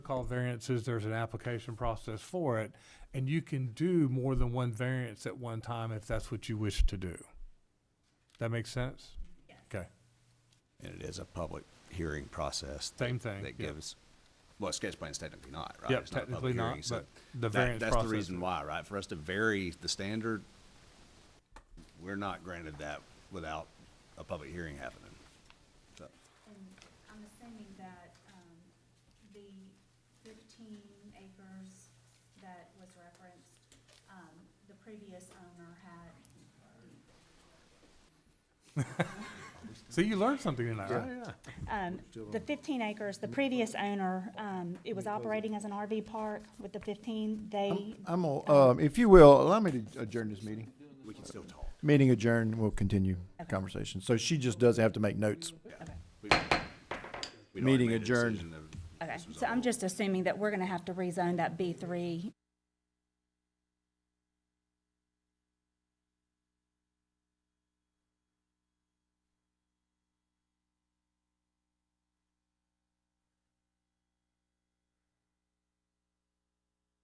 called variances, there's an application process for it, and you can do more than one variance at one time if that's what you wish to do. That makes sense? Okay, And it is a public hearing process. same thing. That yeah. gives, well, sketch plan's technically not, right? Yeah, It's not a public technically not, hearing, so but the that- variance That's the process- reason why, right? For us to vary the standard, we're not granted that without a public hearing happening. So, And I'm assuming that, um, the fifteen acres that was referenced, um, the previous owner had, See, you learned something tonight, right? um, the fifteen acres, the previous owner, um, it was operating as an RV park with the fifteen, they, I'm, all- um, if you will, allow me to adjourn this meeting. we can still talk. Meeting adjourned, we'll continue conversation. So she just doesn't have to make notes. We- we'd already Meeting made a adjourned. decision of- okay. So I'm just assuming that we're gonna have to rezone that B three